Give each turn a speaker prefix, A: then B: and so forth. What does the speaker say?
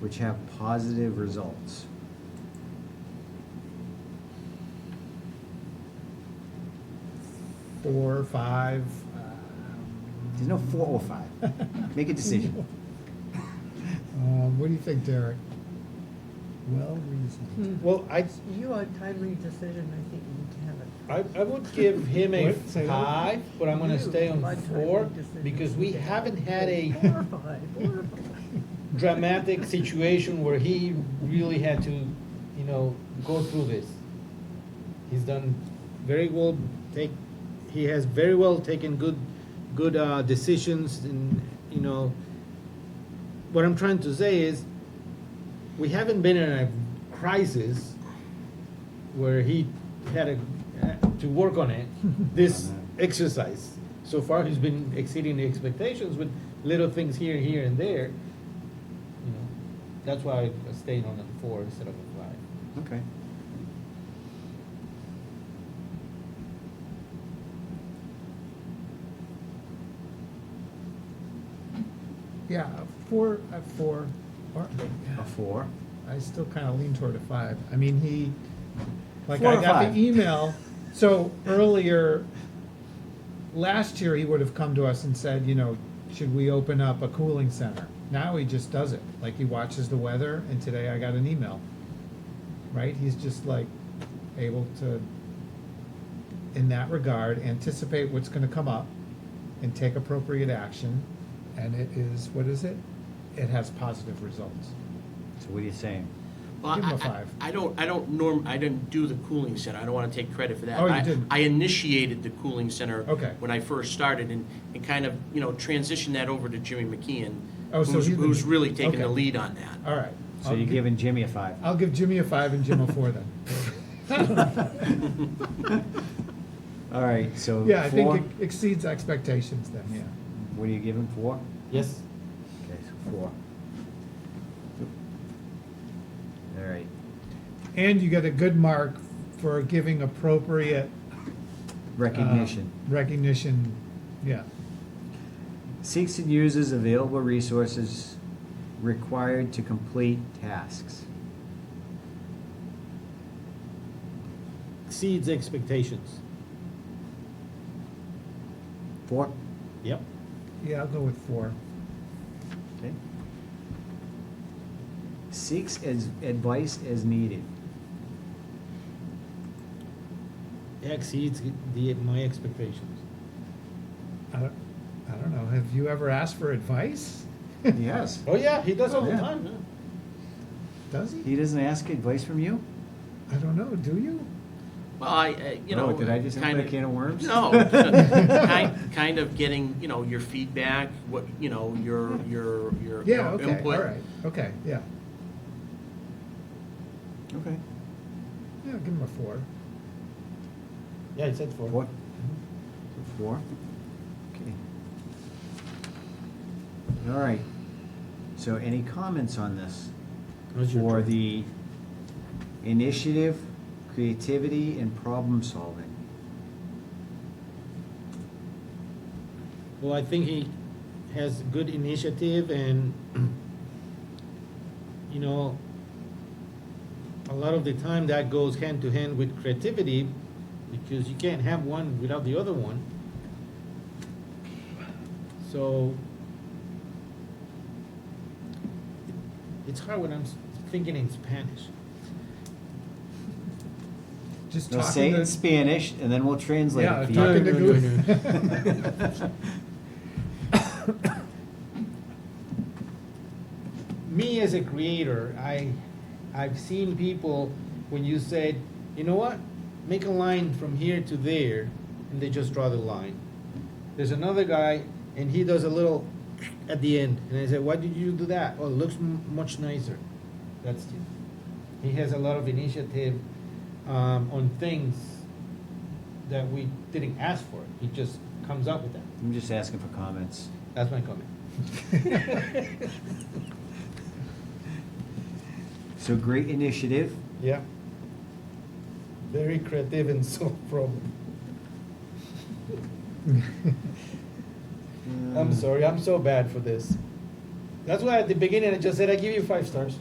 A: which have positive results.
B: four, five. uh,
A: There's no four or five. Make a decision.
B: Um, what do you think, Derek? Well reasoned.
C: Well, I,
D: You on timely decision, I think you need to have it.
C: I, I would give him a
B: What? Say that.
C: five, but I'm gonna stay on
D: You, my timely
C: four,
D: decision.
C: because we haven't had a
D: Four or five, four or five.
C: dramatic situation where he really had to, you know, go through this. He's done very well, take, he has very well taken good, good, uh, decisions and, you know, what I'm trying to say is, we haven't been in a crisis where he had a, to work on it, this exercise. So far, he's been exceeding the expectations with little things here, here, and there. You know, that's why I stayed on a four instead of a five.
A: Okay.
B: Yeah, a four, a four, or,
A: A four.
B: I still kind of lean toward a five. I mean, he, like,
A: Four
B: I
A: or
B: got
A: five?
B: the email, so earlier, last year, he would have come to us and said, you know, should we open up a cooling center? Now he just does it, like, he watches the weather, and today I got an email, right? He's just like able to, in that regard, anticipate what's gonna come up and take appropriate action, and it is, what is it? It has positive results.
A: So what are you saying?
E: Well,
B: Give him a
E: I- I-
B: five.
E: I don't, I don't norm, I didn't do the cooling center, I don't wanna take credit for that.
B: Oh, you
E: I-
B: didn't.
E: I initiated the cooling center.
B: Okay.
E: When I first started and, and kind of, you know, transitioned that over to Jimmy McKeon.
B: Oh, so
E: who's-
B: he's the-
E: Who's really taking the
B: okay.
E: lead on that.
B: All right.
A: So
B: I'll
A: you're
B: gi-
A: giving Jimmy a five.
B: I'll give Jimmy a five and Jim a four then.
A: All right, so
B: Yeah, I
A: four.
B: think it exceeds expectations then, yeah.
A: What are you giving, four?
C: Yes?
A: Okay, so four. All right.
B: And you get a good mark for giving appropriate. uh,
A: Recognition.
B: Recognition, yeah. Uh.
A: Seeks and uses available resources required to complete tasks.
C: Exceeds expectations.
A: Four?
C: Yep.
B: Yeah, I'll go with four.
A: Okay. Seeks as advice as needed.
C: Exceeds the, my expectations.
B: I don't, I don't know, have you ever asked for advice?
A: Yes.
C: Oh, yeah, he does all the
A: Yeah.
C: time, huh?
B: Does he?
A: He doesn't ask advice from you?
B: I don't know, do you?
E: Well, I, I- you
A: Oh,
E: know.
A: did I just open
E: kind
A: a can of worms?
E: No, kind, kind of getting, you know, your feedback, what, you know, your, your, your.
B: Yeah,
E: your
B: okay, all
E: input.
B: right, okay, yeah.
A: Okay.
B: Yeah, give him a four.
C: Yeah, he said four.
A: Four? So Four? Okay. All right. So any comments on this?
C: That's your
A: For
C: turn.
A: the initiative, creativity, and problem solving?
C: Well, I think he has good initiative and, you know, a lot of the time that goes hand to hand with creativity because you can't have one without the other one. So it's hard when I'm s- thinking in Spanish.
B: Just
A: No,
B: talking to.
A: say it in Spanish, and then we'll translate
B: Yeah,
A: it for
B: talking to
C: No, no, no,
B: Goof.
C: me as a creator, I, I've seen people when you said, you know what, make a line from here to there, and they just draw the line. There's another guy, and he does a little at the end, and I said, why did you do that? Oh, it looks m- much nicer. That's it. He has a lot of initiative um, on things that we didn't ask for. He just comes up with that.
A: I'm just asking for comments.
C: That's my comment.
A: So great initiative,
C: Yeah. Very creative and solve problem.
A: Mm.
C: I'm sorry, I'm so bad for this. That's why at the beginning I just said I give you five stars.